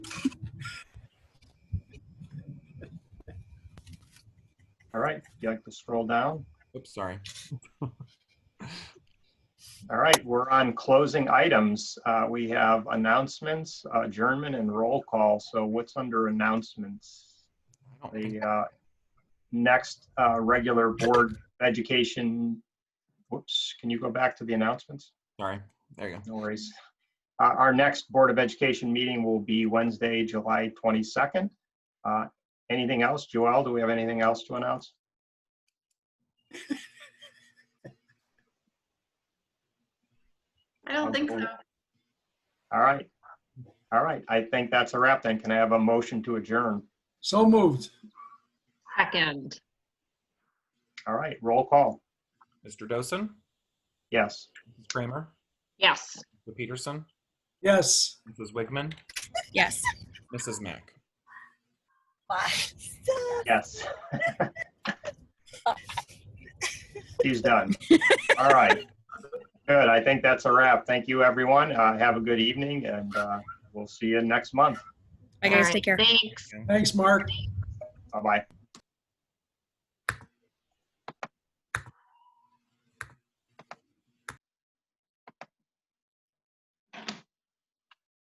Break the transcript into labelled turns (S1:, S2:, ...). S1: All right, if you'd like to scroll down.
S2: Oops, sorry.
S1: All right, we're on closing items. Uh, We have announcements, uh, adjournment, and roll call. So what's under announcements?
S2: I don't
S1: The
S2: think-
S1: uh, next uh, regular Board of Education, whoops, can you go back to the announcements?
S2: Sorry, there you go.
S1: No worries. Uh, Our next Board of Education meeting will be Wednesday, July 22nd. Uh, Anything else? Joelle, do we have anything else to announce?
S3: I don't think so.
S1: Okay. All right. All right, I think that's a wrap then. Can I have a motion to adjourn?
S4: So moved.
S5: Second,
S1: All right, roll call.
S2: Mr. Dosen,
S1: Yes.
S2: Mrs. Kramer,
S5: yes.
S2: Mr. Peterson,
S4: Yes.
S2: Mrs. Wigman,
S6: Yes.
S2: Mrs. Mack.
S1: Yes. He's done. All right. Good. I think that's a wrap. Thank you, everyone. Uh, have a good evening and uh, we'll see you next month.
S6: I
S5: All
S6: guys,
S5: right,
S6: take care.
S5: Thanks.
S4: Thanks, Mark.
S1: Bye-bye.